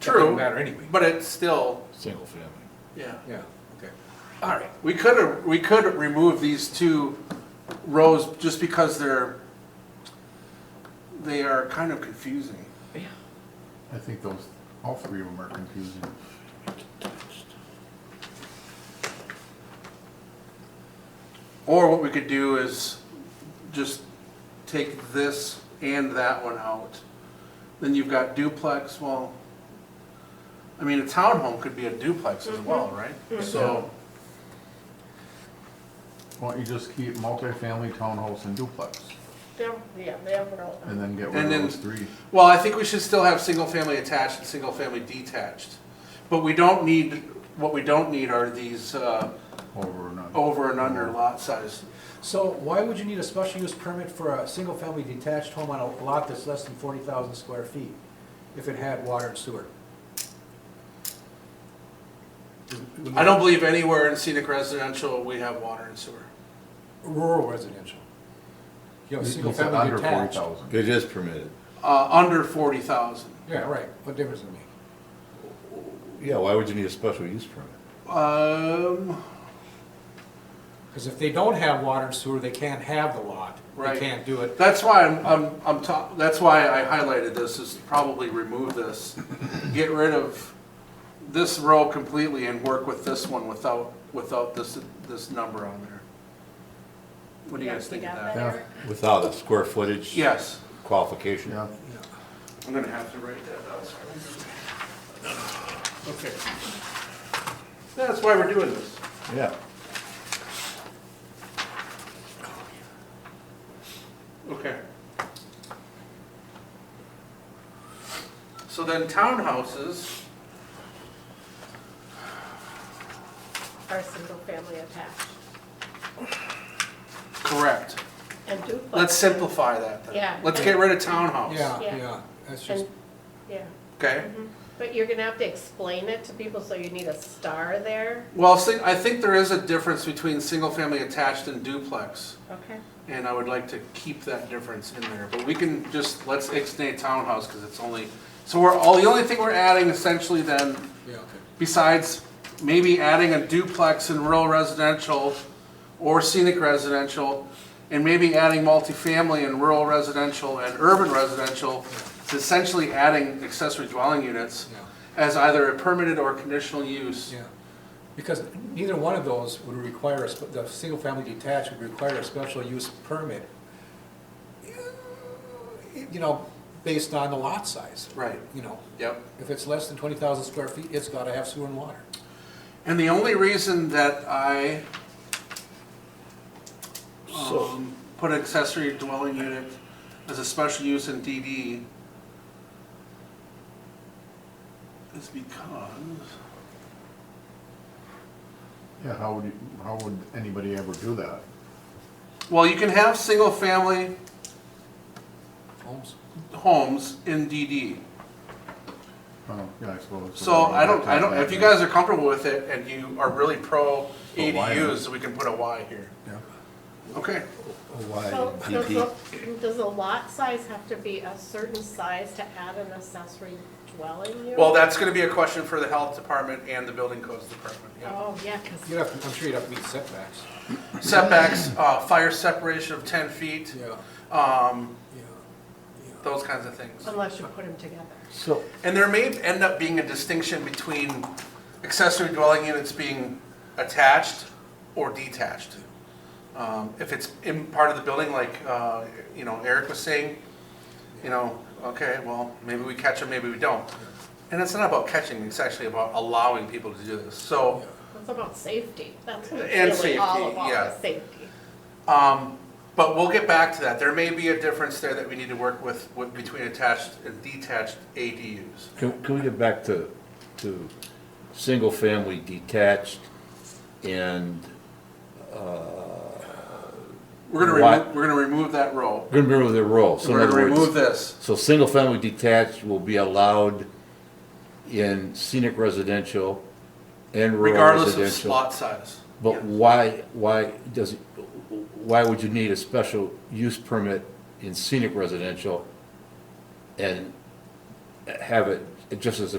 True. doesn't matter anyway. But it's still, single family. yeah, Yeah, okay. all right. We could, have- we could remove these two rows just because they're, they are kind of confusing. I think those, all three of them are confusing. Or what we could do is just take this and that one out. Then you've got duplex, well, I mean, a townhome could be a duplex as well, right? So, Why don't you just keep multifamily townhouse and duplex, They're, yeah, they're all. and then get rid And of then- those three? well, I think we should still have single-family attached and single-family detached. But we don't need, what we don't need are these uh, Over and under. over and under lot size. So why would you need a special use permit for a single-family detached home on a lot that's less than forty thousand square feet if it had water and sewer? I don't believe anywhere in scenic residential we have water and sewer. Rural residential. You know, He- he said single-family detached. Under forty thousand. It is permitted. Uh, Under 40,000. Yeah, right, what difference does it make? Yeah, why would you need a special use permit? Um, Because if they don't have water and sewer, they can't have the lot. They Right. can't do it. That's why I'm, I'm, I'm ta- that's why I highlighted this, is to probably remove this. Get rid of this row completely and work with this one without, without this, this number on there. What do you guys think of that? that? Without a square footage Yes, qualification? Yeah, I'm gonna have to write that down. sorry. Okay. That's why we're doing this. Yeah. Okay. So then townhouses, Are single-family attached correct. and duplex. Let's simplify that then. Yeah. Let's get rid of townhouse. Yeah, Yeah. yeah, that's just, And, yeah, Okay, but you're gonna have to explain it to people, so you need a star there, well, sing- I think there is a difference between single-family attached and duplex, okay? and I would like to keep that difference in there, but we can just, let's extend townhouse, because it's only, so we're, all, the only thing we're adding essentially then, yeah, okay. besides maybe adding a duplex in rural residential or scenic residential, and maybe adding multifamily in rural residential and urban residential, it's essentially adding accessory dwelling units Yeah. as either a permitted or conditional use. Yeah, because neither one of those would require, a sp- the single-family detached would require a special use permit, you know, based on the lot size, Right, you know. yep. If it's less than 20,000 square feet, it's got to have sewer and water. And the only reason that I So, um, put accessory dwelling unit as a special use in DD is because yeah, how would you, how would anybody ever do that? Well, you can have single-family Homes, homes in DD. Oh, yeah, I suppose. So I don't, I don't, if you guys are comfortable with it and you are really pro Put a Y on it. ADUs, we can put a Y here. Yeah. Okay, why So, does DP? the, does the lot size have to be a certain size to add an accessory dwelling unit? well, that's gonna be a question for the health department and the building codes department, yeah. Oh, yeah, 'cause- you'd have, to- I'm sure you'd have to meet setbacks. Setbacks, uh, fire separation of ten feet, Yeah, um, yeah, those kinds of things. unless you put them together. So, And there may end up being a distinction between accessory dwelling units being attached or detached. Um, If it's in part of the building, like, uh, you know, Eric was saying, you know, okay, well, maybe we catch them, maybe we don't. And it's not about catching, it's actually about allowing people to do this. So, It's about safety, that's what And it's really all safety, about, yeah. is safety. um, but we'll get back to that. There may be a difference there that we need to work with, with- between attached and detached ADUs. can, can we get back to, to single-family detached and, We're gonna Why- remove, we're gonna remove that row. we're gonna remove the row, so in We're other gonna words. remove this. So single-family detached will be allowed in scenic residential and rural regardless residential. of slot size. But why, why does, why would you need a special use permit in scenic residential and have it just as a